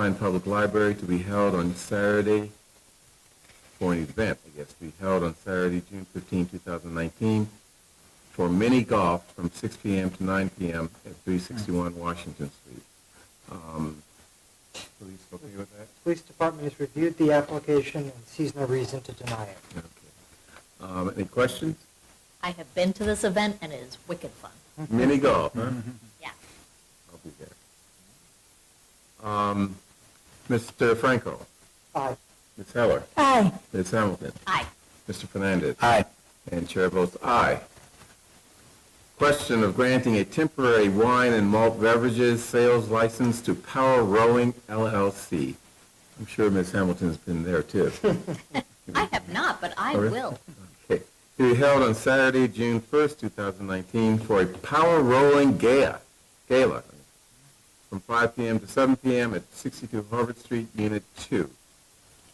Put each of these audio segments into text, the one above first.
Bryan Public Library to be held on Saturday, for an event, I guess, to be held on Saturday, June 15, 2019, for mini golf from 6 p.m. to 9 p.m. at 361 Washington Street. Um, Police okay with that? Police Department has reviewed the application and sees no reason to deny it. Okay. Um, Any questions? I have been to this event and it is wicked fun. Mini golf, huh? Yeah. I'll be there. Um, Mr. Franco? Aye. Ms. Heller? Aye. Ms. Hamilton? Aye. Mr. Fernandez? Aye. And chair votes aye. Question of granting a temporary wine and malt beverages sales license to Power Rowing LLC. I'm sure Ms. Hamilton's been there too. I have not, but I Oh, really? will. Okay. To be held on Saturday, June 1st, 2019, for a Power Rolling Gala, Gala, from 5 PM to 7 PM at 62 Harvard Street, Unit 2.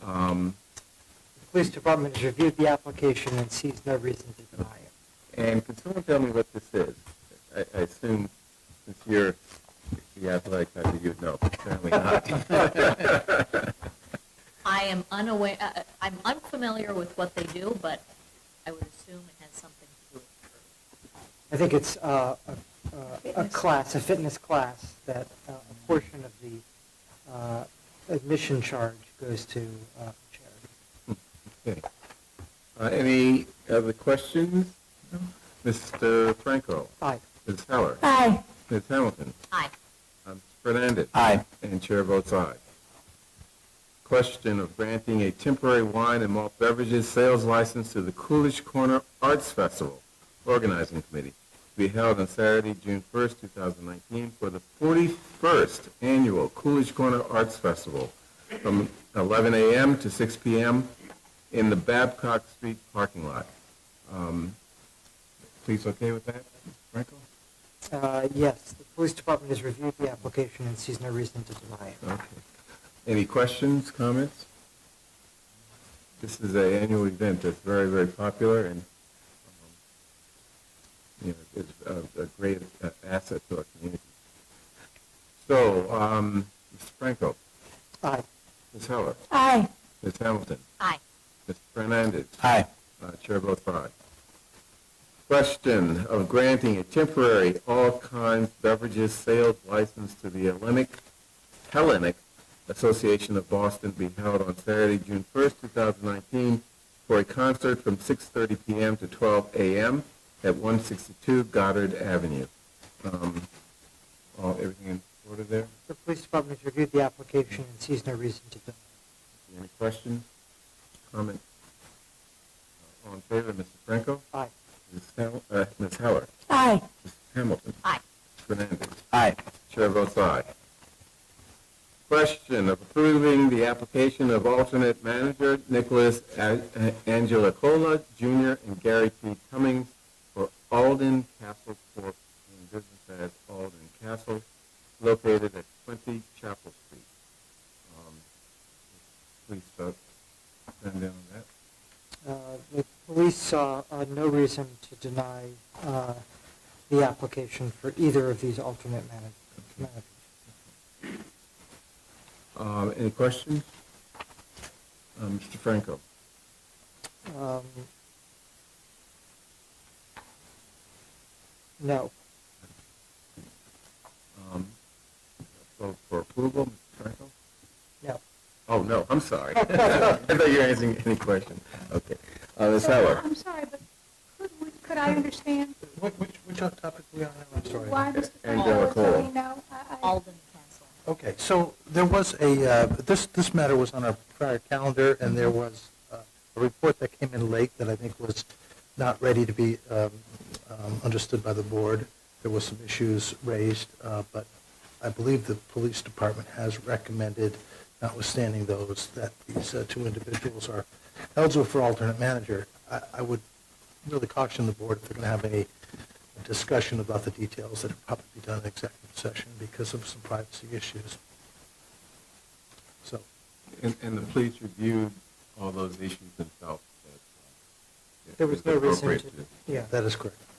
Um, The Police Department has reviewed the application and sees no reason to deny it. And can someone tell me what this is? I, I assume since you're the athletic type, that you'd know. Apparently not. I am unaware, uh, uh, I'm unfamiliar with what they do, but I would assume it has something to do with I think it's uh, a- a a class, a fitness class, that uh, a portion of the uh, admission charge goes to uh, charity. Okay. Uh, any other questions? Mr. Franco, Aye. Ms. Heller, Aye. Ms. Hamilton, Aye. um, Fernandez. Aye. And chair votes aye. Question of granting a temporary wine and malt beverages sales license to the Coolidge Corner Arts Festival Organizing Committee to be held on Saturday, June 1st, 2019, for the 41st Annual Coolidge Corner Arts Festival from 11 a.m. to 6 p.m. in the Babcock Street parking lot. Um, Please okay with that, Michael? Uh, Yes, the Police Department has reviewed the application and sees no reason to deny it. Okay. Any questions, comments? This is an annual event that's very, very popular and, um, you know, is a, a great uh, asset to our community. So, um, Mr. Franco, Aye. Ms. Heller, Aye. Ms. Hamilton, Aye. Mr. Fernandez, Aye. uh, Chair votes aye. Question of granting a temporary all kinds beverages sales license to the Hellenic, Hellenic Association of Boston be held on Saturday, June 1st, 2019, for a concert from 6:30 PM to 12 AM at 162 Goddard Avenue. Um, all- Everything in order there? The Police Department has reviewed the application and sees no reason to deny it. Any questions, comments? All in favor, Mr. Franco? Aye. Ms. Hel- uh, Ms. Heller? Aye. Mr. Hamilton. Aye. Fernandez. Aye. Chair votes aye. Question of approving the application of alternate manager Nicholas A- A- Angelicola Jr. and Gary T. Cummings for Alden Castle Corp. in business as Alden Castle, located at 20 Chapel Street. Um, Please vote. Turn down that. Uh, The police saw uh, no reason to deny uh, the application for either of these alternate manag- managers. Um, Any questions? Uh, Mr. Franco? Um, No. Um, Vote for approval, Mr. Franco? No. Oh, no, I'm sorry. I thought you were answering any question. Okay. Uh, Ms. So, Heller? I'm sorry, but could, we- could I understand Which, which topic we on now? I'm sorry. why Mr. And Franco was Delacola. saying no? I- I- Alden Castle. Okay, so there was a, uh, this, this matter was on our prior calendar, and there was uh, a report that came in late that I think was not ready to be um, um, understood by the board. There were some issues raised, uh, but I believe the police department has recommended, notwithstanding those, that these uh, two individuals are eligible for alternate manager. I, I would really caution the board if they're going to have any discussion about the details that have probably be done in executive session because of some privacy issues. So, And, and the police reviewed all those issues themselves. uh, There was no reason to, yeah. that is correct. uh,